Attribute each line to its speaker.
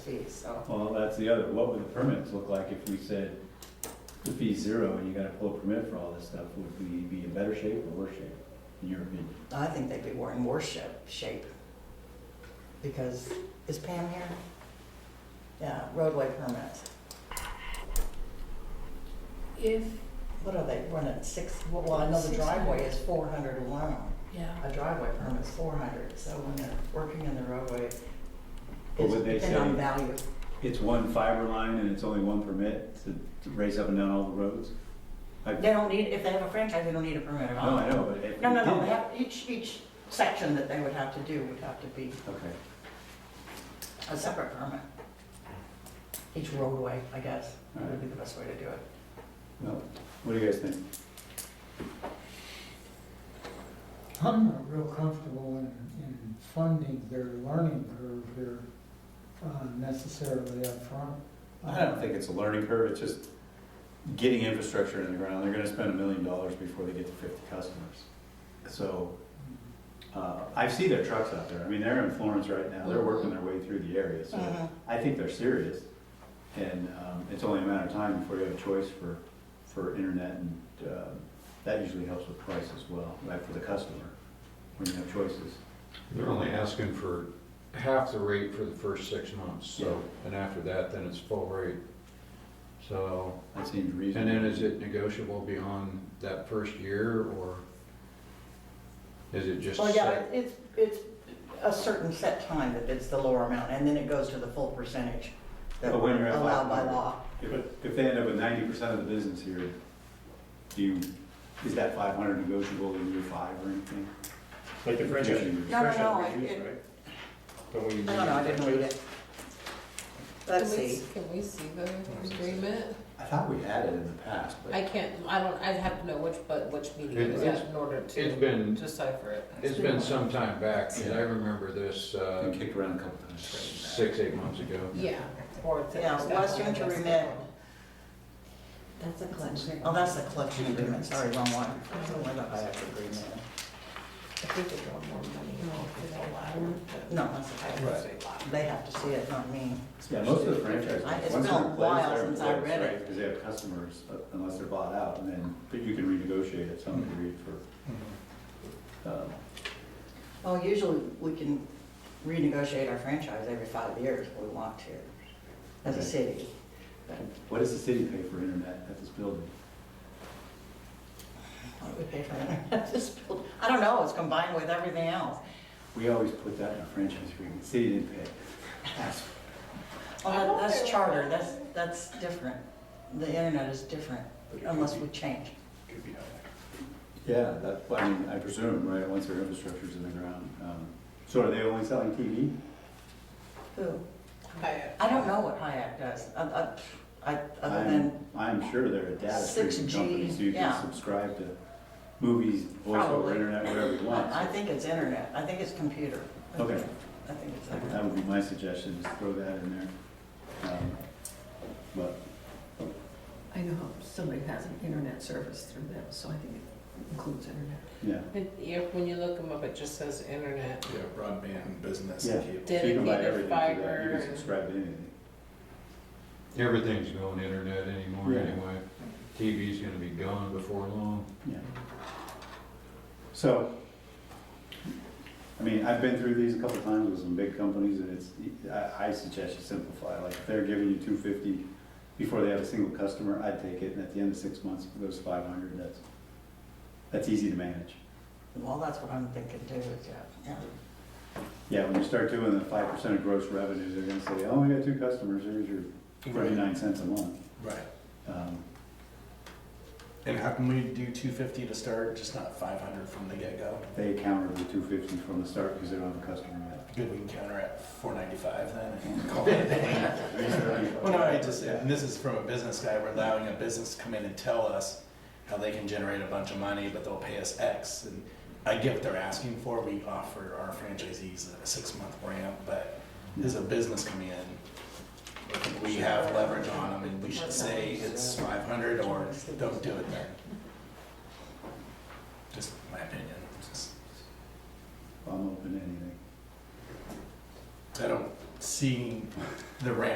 Speaker 1: fee, so.
Speaker 2: Well, that's the other, what would the permits look like if we said the fee's zero and you gotta pull a permit for all this stuff? Would we be in better shape or worse shape, in your opinion?
Speaker 1: I think they'd be more in worse shape- shape. Because, is Pam here? Yeah, roadway permits.
Speaker 3: If,
Speaker 1: What are they, running six, well, I know the driveway is four hundred alone.
Speaker 3: yeah,
Speaker 1: A driveway permit's four hundred, so when they're working in the roadway,
Speaker 2: But
Speaker 1: it's
Speaker 2: would they
Speaker 1: depending on
Speaker 2: say-
Speaker 1: value.
Speaker 2: It's one fiber line and it's only one permit to to race up and down all the roads? I-
Speaker 1: They don't need, if they have a franchise, they don't need a permit at all.
Speaker 2: No, I know, but if we did.
Speaker 1: No, no, no, they have, each, each section that they would have to do would have to be
Speaker 2: Okay,
Speaker 1: a separate permit. Each roadway, I guess, would be the best way to do it.
Speaker 2: no, what do you guys think?
Speaker 4: I'm not real comfortable in, in funding their learning curve here uh, necessarily up front.
Speaker 2: I don't think it's a learning curve, it's just getting infrastructure in the ground. They're gonna spend a million dollars before they get to fifty customers. So,
Speaker 4: Um,
Speaker 2: uh, I see their trucks out there. I mean, they're in Florence right now. They're working their way through the area, so
Speaker 1: Mhm.
Speaker 2: I think they're serious. And, um, it's only a matter of time before you have a choice for, for internet and, uh, that usually helps with price as well, right, for the customer, when you have choices.
Speaker 5: They're only asking for half the rate for the first six months, so, and after that, then it's full rate. So,
Speaker 2: That seems
Speaker 5: and
Speaker 2: reasonable.
Speaker 5: then is it negotiable beyond that first year, or is it just
Speaker 1: Well, Oh, yeah,
Speaker 5: set?
Speaker 1: it- it's, it's a certain set time that it's the lower amount, and then it goes to the full percentage that
Speaker 2: But when you're at
Speaker 1: allowed by
Speaker 2: five-
Speaker 1: law.
Speaker 2: If, if they end up with ninety percent of the business here, do you, is that five hundred negotiable in year five or anything?
Speaker 6: Like the franchise,
Speaker 2: Yeah.
Speaker 1: No, no, no,
Speaker 6: franchise
Speaker 1: I-
Speaker 6: reviews,
Speaker 1: it-
Speaker 6: right? Don't we?
Speaker 1: I don't know, I didn't read it. Let's
Speaker 7: Can we-
Speaker 1: see.
Speaker 7: Can we see the agreement?
Speaker 2: I thought we had it in the past,
Speaker 7: I
Speaker 2: but
Speaker 7: can't, I don't, I'd have to know which, but which meeting
Speaker 5: It-
Speaker 7: it was
Speaker 5: it's-
Speaker 7: at in order
Speaker 5: It's
Speaker 7: to
Speaker 5: been,
Speaker 7: decipher it.
Speaker 5: it's been some time back, 'cause
Speaker 2: Yeah.
Speaker 5: I remember this,
Speaker 2: I
Speaker 5: uh,
Speaker 2: kicked around a couple times.
Speaker 5: six, eight months ago.
Speaker 7: Yeah. Or it's-
Speaker 1: Yeah, Western to remit.
Speaker 7: That's a collection.
Speaker 1: Oh, that's the collection agreement, sorry, wrong one. Why don't I have the agreement?
Speaker 7: I think they want more money for the latter. but-
Speaker 1: No, that's the
Speaker 2: Right.
Speaker 1: They have to see it, not me.
Speaker 2: Yeah, most of the franchise,
Speaker 1: I- it's been
Speaker 2: once they're
Speaker 1: a
Speaker 2: in place,
Speaker 1: while
Speaker 2: they're in
Speaker 1: since I
Speaker 2: place,
Speaker 1: read it.
Speaker 2: right? Because they have customers, but unless they're bought out, and then, but you can renegotiate at some degree for, um,
Speaker 1: Well, usually we can renegotiate our franchise every five years if we want to, as a
Speaker 2: Okay.
Speaker 1: city. But
Speaker 2: what does the city pay for internet at this building?
Speaker 1: What do we pay for internet? This build- I don't know, it's combined with everything else.
Speaker 2: We always put that in our franchise agreement, city didn't pay. That's-
Speaker 1: Well, that- that's charter, that's, that's different. The internet is different unless we change.
Speaker 6: Could be high.
Speaker 2: Yeah, that, I mean, I presume, right, once their infrastructure's in the ground. um, So are they only selling TV?
Speaker 1: Who?
Speaker 7: I-
Speaker 1: I don't know what Hayek does, I- I- I, other than,
Speaker 2: I'm, I'm sure they're a data streaming
Speaker 1: 6G,
Speaker 2: company, so you can
Speaker 1: yeah.
Speaker 2: subscribe to movies, voice over
Speaker 1: Probably.
Speaker 2: internet, whatever you want.
Speaker 1: I I think it's internet, I think it's computer. I think-
Speaker 2: Okay.
Speaker 1: I think it's
Speaker 2: So
Speaker 1: internet.
Speaker 2: That would be my suggestion, is throw that in there. Um, But,
Speaker 8: I know somebody has an internet service through them, so I think it includes internet.
Speaker 2: yeah.
Speaker 7: But Yeah, when you look them up, it just says internet.
Speaker 6: Yeah, broadband, business,
Speaker 2: Yeah.
Speaker 6: cable.
Speaker 2: So you can buy everything through that, you
Speaker 7: Dedicated fiber
Speaker 2: can
Speaker 7: and-
Speaker 2: subscribe to anything.
Speaker 5: Everything's going internet anymore
Speaker 2: Yeah.
Speaker 5: anyway. TV's gonna be gone before long.
Speaker 2: Yeah. So, I mean, I've been through these a couple times with some big companies, and it's, I, I suggest you simplify, like, if they're giving you two fifty before they have a single customer, I'd take it, and at the end of six months, if it goes five hundred, that's, that's easy to manage.
Speaker 1: Well, that's what I'm thinking too, is, yeah, yeah.
Speaker 2: Yeah, when you start doing the five percent of gross revenues, they're gonna say, oh, we got two customers, here's your thirty-nine cents a month.
Speaker 6: Right.
Speaker 2: Um,
Speaker 6: And how can we do two fifty to start, just not five hundred from the get-go?
Speaker 2: They counter the two fifty from the start, because they don't have a customer yet.
Speaker 6: Good, we can counter at four ninety-five then and call it a day. Well, no, I just, and this is from a business guy, we're allowing a business to come in and tell us how they can generate a bunch of money, but they'll pay us X. And I get what they're asking for, we offer our franchisees a six-month ramp, but as a business coming in, I think we have leverage on them and we should say it's five hundred or don't do it then. Just my opinion, just.
Speaker 2: I'm open to anything.
Speaker 6: I don't see the ramp